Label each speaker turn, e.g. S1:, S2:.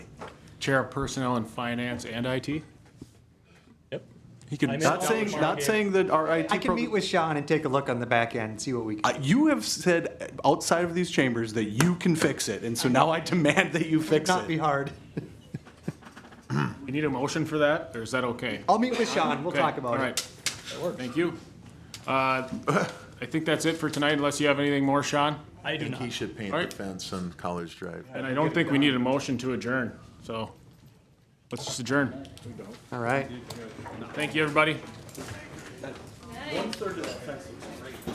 S1: Chair of Personnel and Finance and IT?
S2: Yep.
S1: He could.
S2: I'm in.
S3: Not saying, not saying that our IT.
S4: I can
S3: program-
S4: meet with Sean and take a look on the back end and see what we
S3: Uh,
S4: can.
S3: You have said outside of these chambers that you can fix it, and so now I demand that you fix
S4: Not be
S3: it.
S4: hard.
S1: You need a motion for that, or is that okay?
S4: I'll meet with Sean. We'll
S1: Okay,
S4: talk
S1: all
S4: about
S1: right.
S4: it.
S1: Thank you. Uh, I think that's it for tonight, unless you have anything more, Sean?
S2: I do
S5: think
S2: not.
S5: he should paint
S1: Alright.
S5: the fence on College Drive.
S1: And I don't think we need a motion to adjourn, so let's just adjourn.
S4: All right.
S1: Thank you, everybody.